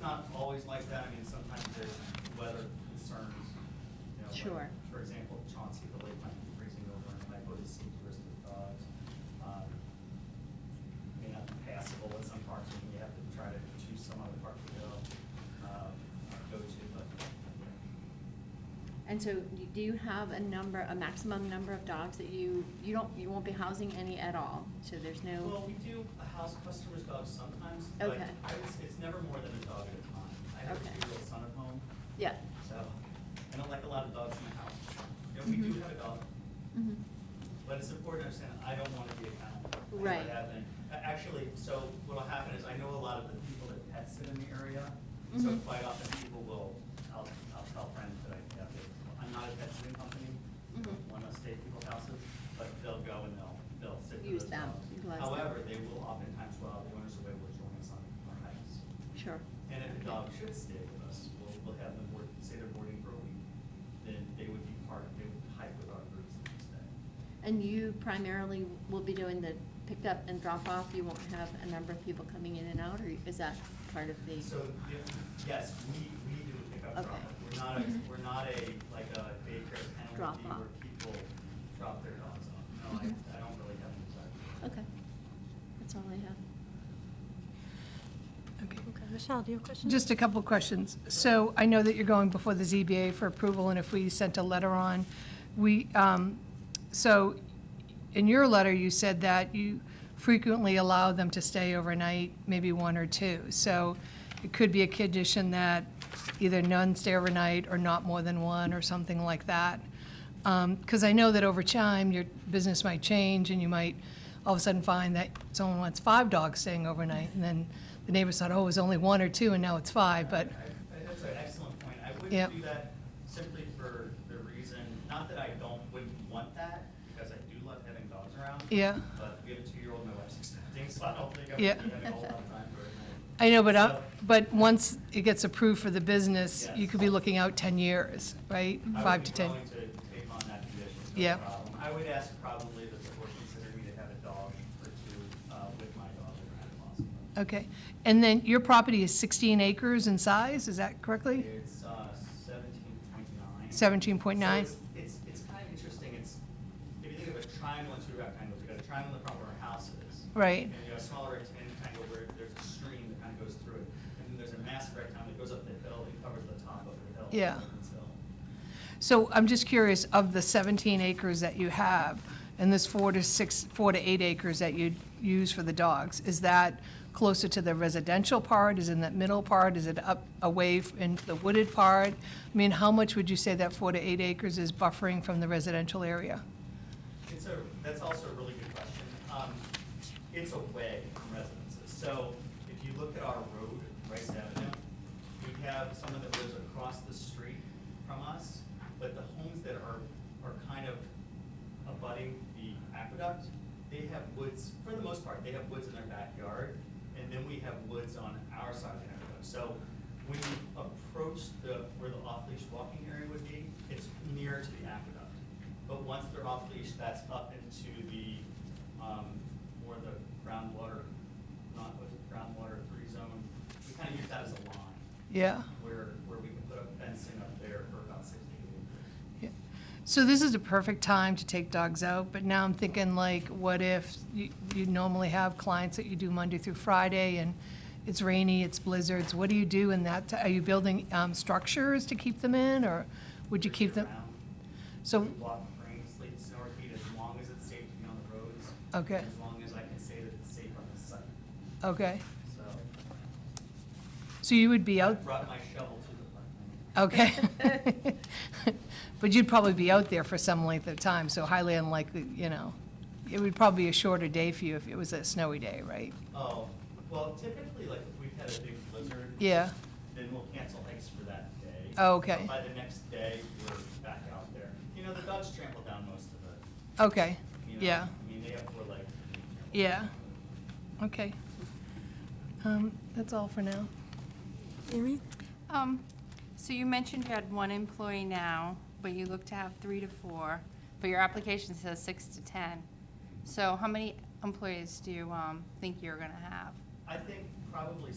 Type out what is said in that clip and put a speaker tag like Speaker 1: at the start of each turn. Speaker 1: not always like that. I mean, sometimes there's weather concerns. you know, like,
Speaker 2: Sure.
Speaker 1: For example, Chauncey, the lake might be freezing over and might go to see tourists with dogs. Um, May not be passable at some parks and you have to try to choose some other park to go, um, go to, but.
Speaker 2: And so you- do you have a number, a maximum number of dogs that you, you don't, you won't be housing any at all? So there's
Speaker 1: Well,
Speaker 2: no,
Speaker 1: we do house customers' dogs sometimes, but
Speaker 2: Okay.
Speaker 1: I would s- it's never more than a dog at a time. I have a
Speaker 2: Okay.
Speaker 1: two-year-old son at home,
Speaker 2: yeah.
Speaker 1: so I don't like a lot of dogs in the house. You know, we do
Speaker 2: Mhm.
Speaker 1: have a dog,
Speaker 2: Mhm.
Speaker 1: But it's important to understand, I don't want to be a kennel. I don't
Speaker 2: Right.
Speaker 1: have any- a- Actually, so what'll happen is, I know a lot of the people that pet sit in the area, so
Speaker 2: Mhm.
Speaker 1: quite often people will, I'll, I'll tell friends that I have this, I'm not a pet sitting company, I don't
Speaker 2: Mhm.
Speaker 1: want to stay at people's houses, but they'll go and they'll, they'll sit for
Speaker 2: Use
Speaker 1: those
Speaker 2: them,
Speaker 1: dogs.
Speaker 2: utilize them.
Speaker 1: However, they will oftentimes, while the owners away, will join us on our hikes.
Speaker 2: Sure.
Speaker 1: And if the
Speaker 2: Okay.
Speaker 1: dog should stay with us, we'll, we'll have them board, say they're boarding for a week, then they would be part, they would hike with our groups the next day.
Speaker 2: And you primarily will be doing the pickup and drop off? You won't have a number of people coming in and out, or is that part of the?
Speaker 1: So, yeah, yes, we, we do the pickup
Speaker 2: Okay.
Speaker 1: drop off. We're not a,
Speaker 2: Mhm.
Speaker 1: we're not a, like a daycare
Speaker 2: Drop
Speaker 1: penalty
Speaker 2: off.
Speaker 1: where people drop their dogs off. No, I,
Speaker 2: Mhm.
Speaker 1: I don't really have an desire.
Speaker 2: Okay, that's all I have.
Speaker 3: Okay.
Speaker 4: Okay, Michelle, do you have a question?
Speaker 3: Just a couple of questions. So I know that you're going before the ZBA for approval, and if we sent a letter on, we, um, so in your letter, you said that you frequently allow them to stay overnight, maybe one or two. So it could be a condition that either none stay overnight or not more than one or something like that. Because I know that over time, your business might change and you might all of a sudden find that someone wants five dogs staying overnight. And then the neighbors thought, oh, it was only one or two and now it's five, but,
Speaker 1: I- I- That's an excellent point. I
Speaker 3: Yep.
Speaker 1: wouldn't do that simply for the reason, not that I don't, wouldn't want that, because I do love having dogs around.
Speaker 3: yeah.
Speaker 1: But we have a two-year-old, my wife's expecting, so I don't think I'm
Speaker 3: Yeah.
Speaker 1: gonna be having a whole lot of time for it.
Speaker 3: I know, but, uh,
Speaker 1: So-
Speaker 3: but once it gets approved for the business, you
Speaker 1: Yes.
Speaker 3: could be looking out 10 years, right? Five to 10.
Speaker 1: I would be willing to take on that condition,
Speaker 3: Yeah.
Speaker 1: no problem. I would ask probably that the board consider me to have a dog or two uh, with my dog if at possible.
Speaker 3: Okay. And then your property is 16 acres in size, is that correctly?
Speaker 1: It's uh, seventeen point nine.
Speaker 3: 17.9?
Speaker 1: It's, it's kind of interesting, it's, if you think of a triangle and two rectangles, you've got a triangle in the front where our house is.
Speaker 3: Right.
Speaker 1: And you got a smaller rectangle where there's a stream that kind of goes through it. And then there's a massive rectangle that goes up the hill and covers the top of the hill.
Speaker 3: Yeah.
Speaker 1: Lincoln's Hill.
Speaker 3: So I'm just curious, of the 17 acres that you have, and this four to six, four to eight acres that you use for the dogs, is that closer to the residential part? Is it in that middle part? Is it up, away f- into the wooded part? I mean, how much would you say that four to eight acres is buffering from the residential area?
Speaker 1: It's a, that's also a really good question. Um, it's away from residences. So if you look at our road, Rice Avenue, we have someone that lives across the street from us, but the homes that are, are kind of abutting the aqueduct, they have woods, for the most part, they have woods in their backyard, and then we have woods on our side of the aqueduct. So when you approach the, where the off-leash walking area would be, it's near to the aqueduct. But once they're off leash, that's up into the, um, more the groundwater, not with groundwater free zone. We kind of use that as a line
Speaker 3: Yeah.
Speaker 1: where, where we can put up fencing up there for about sixty acres.
Speaker 3: Yeah. So this is a perfect time to take dogs out, but now I'm thinking like, what if you, you normally have clients that you do Monday through Friday and it's rainy, it's blizzards, what do you do in that, ti- are you building, um, structures to keep them in or would you keep them?
Speaker 1: Year-round.
Speaker 3: So,
Speaker 1: We block rain, sleet, snow, or heat as long as it's safe to be on the roads.
Speaker 3: Okay.
Speaker 1: As long as I can say that it's safe on the site,
Speaker 3: okay,
Speaker 1: so.
Speaker 3: so you would be
Speaker 1: I
Speaker 3: out,
Speaker 1: Brought my shovel to the park.
Speaker 3: okay. But you'd probably be out there for some length of time, so highly unlikely, you know, it would probably be a shorter day for you if it was a snowy day, right?
Speaker 1: Oh, well, typically, like, if we've had a big blizzard.
Speaker 3: Yeah,
Speaker 1: then we'll cancel hikes for that day.
Speaker 3: Oh, okay.
Speaker 1: By the next day, we're back out there. You know, the dogs trample down most of it.
Speaker 3: okay,
Speaker 1: you know?
Speaker 3: yeah.
Speaker 1: I mean, they have four legs. and they trample
Speaker 3: Yeah.
Speaker 1: down.
Speaker 3: Okay. Um, That's all for now.
Speaker 4: Amy?
Speaker 5: Um, So you mentioned you had one employee now, but you look to have three to four, but your application says six to 10. So how many employees do you um, think you're going to have?
Speaker 1: I think probably